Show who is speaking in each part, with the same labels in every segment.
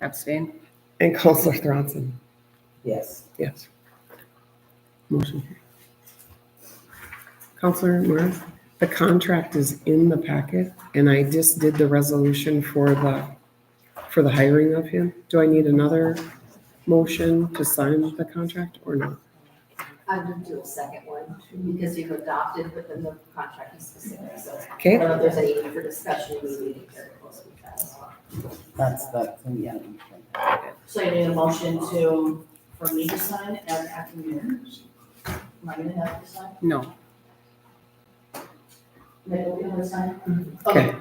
Speaker 1: Abstain?
Speaker 2: And Counselor Thronson,
Speaker 3: Yes.
Speaker 2: yes. Motion. carries. Counselor Morris, the contract is in the packet and I just did the resolution for the, for the hiring of him. Do I need another motion to sign the contract or not?
Speaker 4: I'm gonna do a second one, because you've adopted, but then the contract is specific, so I
Speaker 2: Okay,
Speaker 4: don't know if there's any need for discussion, we need to carry close with that as well.
Speaker 3: That's, that's, yeah.
Speaker 4: So I need a motion to, for me to sign as acting mayor. Am I gonna have to sign?
Speaker 2: no,
Speaker 4: Maybe we'll be able to sign?
Speaker 2: Okay.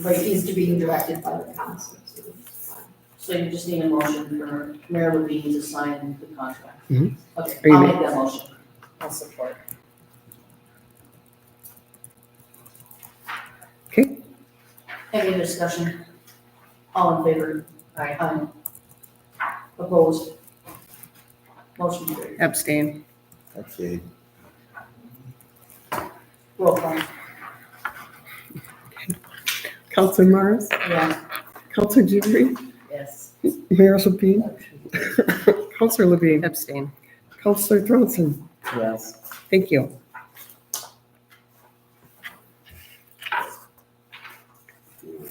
Speaker 4: But he's to be directed by the council to sign.
Speaker 5: So you just need a motion for Mayor Levine to sign the contract?
Speaker 2: Mhm.
Speaker 5: Okay,
Speaker 2: Are you
Speaker 5: I'll
Speaker 2: ma-
Speaker 5: make that motion.
Speaker 4: I'll support.
Speaker 2: okay,
Speaker 5: Any other discussion? All in favor? Aye. Opposed? Motion carried.
Speaker 1: Abstain?
Speaker 6: Okay.
Speaker 5: Roll call.
Speaker 2: Counselor Morris,
Speaker 5: Yeah.
Speaker 2: Counselor Jury,
Speaker 4: Yes.
Speaker 2: Mayor Lapine, Counselor Levine,
Speaker 1: Abstain.
Speaker 2: Counselor Thronson,
Speaker 3: Yes.
Speaker 2: thank you.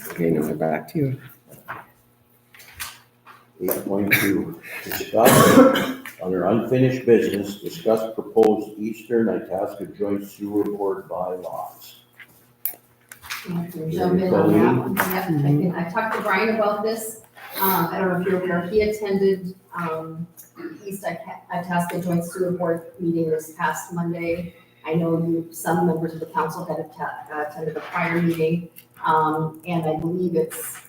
Speaker 2: Okay, now we're back to you.
Speaker 6: Eight point two, discuss under unfinished business, discuss proposed Eastern Itasca Joint Sewer Board bylaws.
Speaker 4: Jump in on that one, yep, I can, I talked to Brian about this, um, I don't know if you're aware, he attended, um, East Ita- Itasca Joint Sewer Board meeting this past Monday. I know you, some members of the council that have ta- uh, attended the prior meeting, um, and I believe it's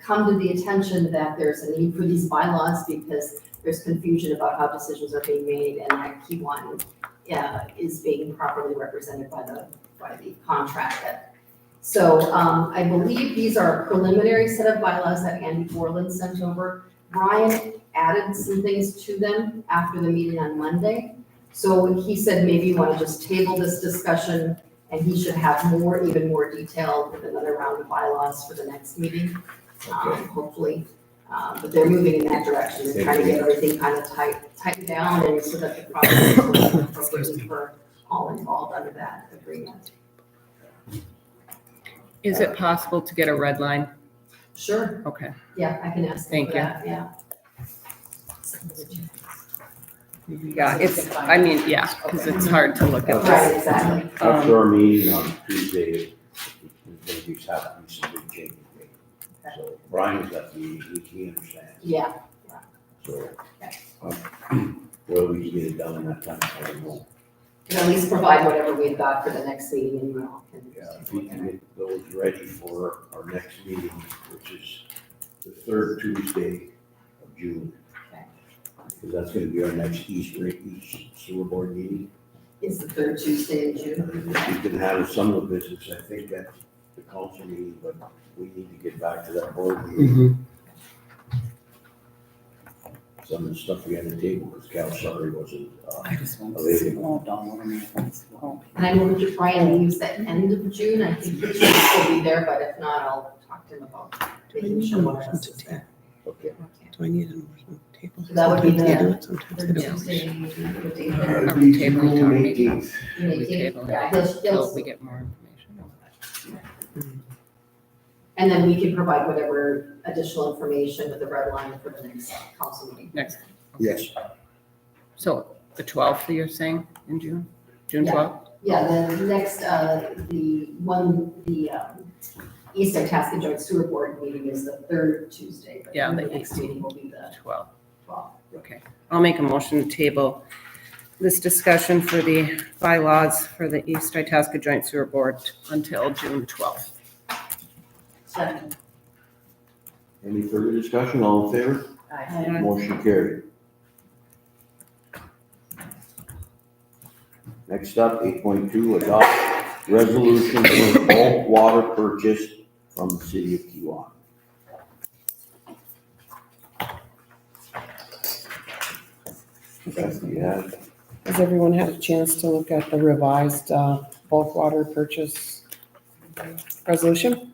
Speaker 4: come to the attention that there's a need for these bylaws because there's confusion about how decisions are being made and that key one, yeah, uh, is being properly represented by the, by the contract that so um, I believe these are a preliminary set of bylaws that Andy Borland sent over. Brian added some things to them after the meeting on Monday. So he said maybe you want to just table this discussion and he should have more, even more detail with another round of bylaws for the next meeting, um, hopefully. Uh, But they're moving in that direction and trying to get everything kind of tight, tightened down and so that the process is appropriate for all involved under that agreement.
Speaker 1: Is it possible to get a red line?
Speaker 4: Sure.
Speaker 1: Okay.
Speaker 4: Yeah, I can ask them
Speaker 1: Thank
Speaker 4: for
Speaker 1: you.
Speaker 4: that, yeah.
Speaker 1: Yeah, it's, I mean, yeah, because it's hard to look at
Speaker 4: Right,
Speaker 1: this.
Speaker 4: exactly.
Speaker 6: After our meeting on Tuesday, we have to do some big changes. So Brian's got the, he- he understands,
Speaker 4: Yeah,
Speaker 6: so. um, Whether we can get it done in that time, I don't know.
Speaker 4: and at least provide whatever we've got for the next meeting and we'll.
Speaker 6: Yeah, if we can get those ready for our next meeting, which is the third Tuesday of June.
Speaker 4: Okay.
Speaker 6: Because that's gonna be our next Easter, East Sewer Board meeting.
Speaker 4: It's the third Tuesday in June.
Speaker 6: And if we can have some of the business, I think that's the council meeting, but we need to get back to that board meeting. Some of the stuff we had to table, because Cal Sutry wasn't, uh,
Speaker 3: I just want to see, oh, don't want to make us go.
Speaker 4: And I know Mr. Brian leaves at end of June, I think he should still be there, but if not, I'll talk to him about making
Speaker 1: Hmm.
Speaker 4: sure what else is there.
Speaker 6: okay.
Speaker 4: Okay.
Speaker 2: Do I need an motion to table?
Speaker 4: So that would be
Speaker 2: Sometimes I
Speaker 4: the
Speaker 2: do it, sometimes I
Speaker 4: Third
Speaker 2: don't.
Speaker 4: Tuesday, the day there.
Speaker 6: Uh,
Speaker 1: Are we tabling town
Speaker 6: June
Speaker 1: meeting?
Speaker 6: 18th.
Speaker 1: We table
Speaker 4: Yeah,
Speaker 1: it
Speaker 4: he'll,
Speaker 1: till
Speaker 4: he'll,
Speaker 1: we get more information.
Speaker 4: and then we can provide whatever additional information with the red line for the next council meeting.
Speaker 1: Next,
Speaker 6: Yes,
Speaker 1: so the twelfth, you're saying, in June? June
Speaker 4: Yeah.
Speaker 1: twelfth?
Speaker 4: Yeah, the next, uh, the one, the, um, East Itasca Joint Sewer Board meeting is the third Tuesday. but
Speaker 1: Yeah,
Speaker 4: The
Speaker 1: the
Speaker 4: next meeting will be the
Speaker 1: Twelve.
Speaker 4: twelfth.
Speaker 1: Okay. I'll make a motion to table this discussion for the bylaws for the East Itasca Joint Sewer Board until June twelfth.
Speaker 5: Second.
Speaker 6: any further discussion, all in favor?
Speaker 1: Aye.
Speaker 6: Motion carried. Next up, eight point two, adopt resolution for bulk water purchase from the city of Kiwanis. Beth, do you have?
Speaker 2: Has everyone had a chance to look at the revised uh, bulk water purchase resolution?